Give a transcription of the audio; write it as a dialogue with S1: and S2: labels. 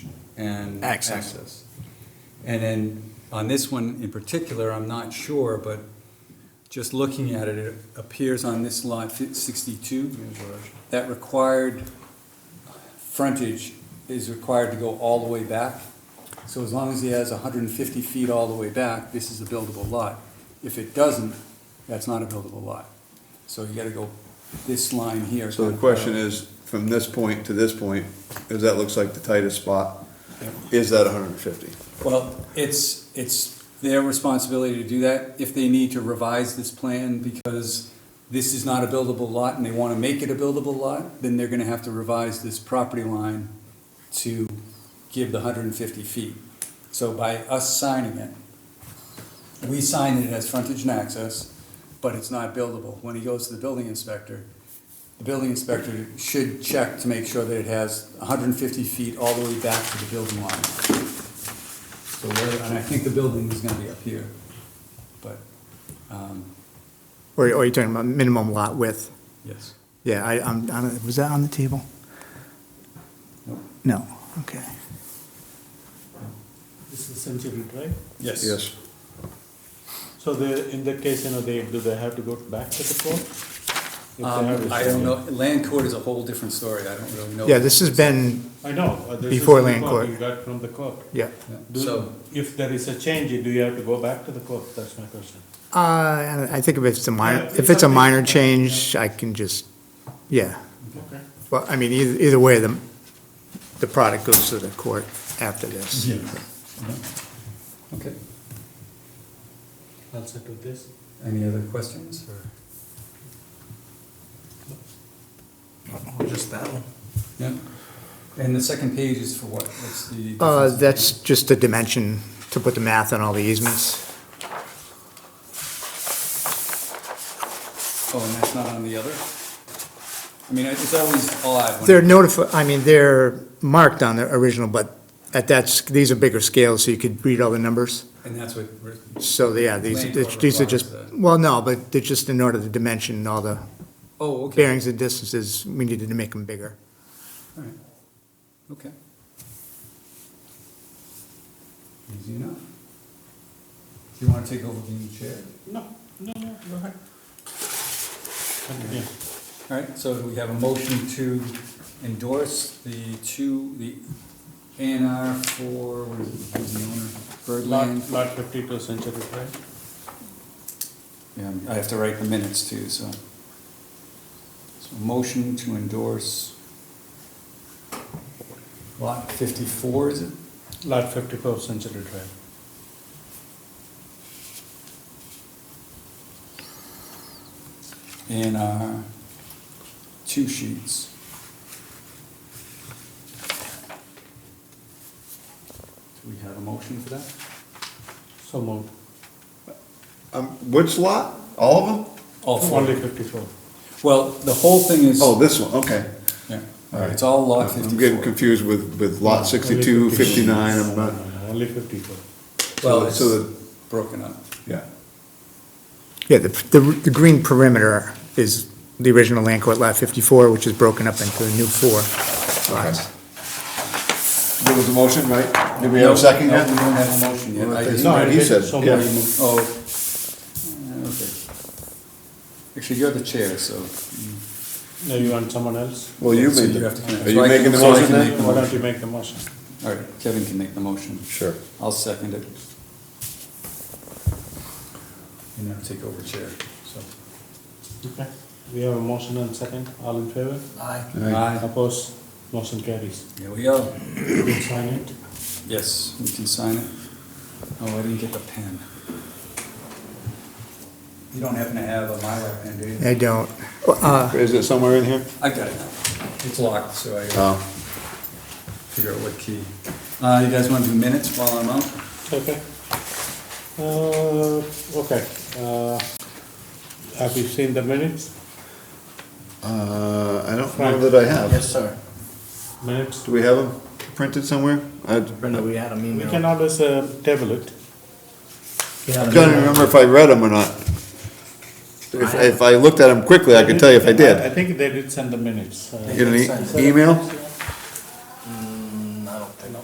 S1: and
S2: Access.
S1: access. And then on this one in particular, I'm not sure, but just looking at it, it appears on this lot fi- sixty-two that required frontage is required to go all the way back. So as long as he has hundred and fifty feet all the way back, this is a buildable lot. If it doesn't, that's not a buildable lot. So you gotta go this line here.
S3: So the question is, from this point to this point, because that looks like the tightest spot, is that hundred and fifty?
S1: Well, it's, it's their responsibility to do that. If they need to revise this plan because this is not a buildable lot and they wanna make it a buildable lot, then they're gonna have to revise this property line to give the hundred and fifty feet. So by us signing it, we sign it as frontage and access, but it's not buildable. When he goes to the building inspector, the building inspector should check to make sure that it has hundred and fifty feet all the way back to the building line. So where, and I think the building is gonna be up here, but, um,
S2: Or, or you're talking about minimum lot width?
S1: yes.
S2: Yeah, I, I'm, I don't- was that on the table?
S1: Nope.
S2: No, okay.
S4: This is century, right?
S3: Yes.
S4: So the, in that case, you know, they, do they have to go back to the court? If they have
S1: Um,
S4: a-
S1: I don't know, land court is a whole different story, I don't really know.
S2: Yeah, this has been,
S4: I know. uh, this is
S2: Before
S4: the
S2: land court.
S4: You got from the court.
S2: yeah.
S1: Yeah,
S4: Do-
S1: So,
S4: If there is a change, do you have to go back to the court? That's my question.
S2: Uh, and I think if it's a minor,
S4: Yeah,
S2: if it's a
S4: something-
S2: minor change, I can just, yeah.
S4: Okay.
S2: Well, I mean, either, either way, the, the product goes to the court after this.
S1: yeah, Mm-hmm. okay,
S4: I'll set with this.
S1: any other questions, or,
S5: Just that one.
S1: yeah? And the second page is for what, what's the?
S2: Uh, that's just the dimension to put the math on all the easements.
S1: Oh, and that's not on the other? I mean, it's always odd when.
S2: They're notified, I mean, they're marked on the original, but at that, s- these are bigger scales, so you could read all the numbers.
S1: And that's what, we're-
S2: So, yeah, these,
S1: Land
S2: it's-
S1: court
S2: these are
S1: requires
S2: just,
S1: that.
S5: uh,
S2: well, no, but they're just in order to dimension all the
S1: oh, okay.
S2: bearings and distances, we needed to make them bigger.
S1: All right, okay. Easy enough. Do you wanna take over the chair?
S4: No, no, no, go ahead. Continue.
S1: All right, so we have a motion to endorse the two, the A and R for, what is it, who's the owner? Birdland?
S4: Lot, lot fifty-two century, right?
S1: Yeah, I have to write the minutes too, so. So motion to endorse lot fifty-four, is it?
S4: Lot fifty-four century, right?
S1: in our two sheets. Do we have a motion for that?
S4: So moved.
S3: Um, which lot? All of them?
S1: All
S4: Only
S1: four.
S4: fifty-four.
S1: Oh, Well, the whole thing is,
S3: Oh, this one, okay.
S1: yeah, it's all lot
S3: I'm getting
S1: fifty-four.
S3: confused with, with lot sixty-two,
S4: Only 54.
S3: fifty-nine, I'm not,
S4: No, no, no, Only fifty-four.
S1: Well,
S3: so-
S1: it's
S3: so the-
S1: broken up.
S3: yeah.
S2: Yeah, the, the, the green perimeter is the original land court lot fifty-four, which is broken up into the new four lots.
S3: There was a motion, right? Did we have a second
S1: No, We
S3: yet?
S1: don't have a motion yet. I didn't
S4: No,
S1: write
S4: I
S3: he
S4: did,
S3: said,
S4: so
S3: yeah.
S4: moved.
S1: it. Oh, uh, okay. Actually, you're the chair, so.
S4: No, you want someone else?
S3: Well, you
S1: so
S3: made,
S1: have to
S3: the-
S1: connect.
S3: are
S1: So
S3: you
S1: I can-
S3: making the
S1: so I
S3: motion
S1: can
S3: then?
S1: make the
S4: Why don't
S1: motion.
S4: you make the motion?
S1: All right, Kevin can make the motion.
S3: Sure.
S1: I'll second it. And now take over chair, so.
S4: Okay, we have a motion and second, all in favor?
S1: Aye.
S4: Opposed, motion carries.
S1: Here we go.
S4: You can sign it.
S1: Yes, we can sign it. Oh, I didn't get the pen. You don't happen to have a Mylar pen, do you?
S2: I don't, uh,
S3: Is it somewhere in here?
S1: I got it now. It's locked, so I gotta
S3: Oh.
S1: figure out what key. Uh, you guys wanna do minutes while I'm out?
S4: Okay. Uh, okay, uh, have you seen the minutes?
S3: Uh, I don't
S4: Frank.
S3: know that I have.
S5: sir.
S4: Minutes?
S3: Do we have them printed somewhere? I
S5: Brenda, we had a
S4: We
S5: email.
S4: can always uh, table it.
S5: We had a
S3: don't
S5: email.
S3: remember if I read them or not. If, if I looked at them quickly, I could tell you if I
S4: I
S3: did.
S4: think they did send the minutes. Uh,
S3: Get an e- email?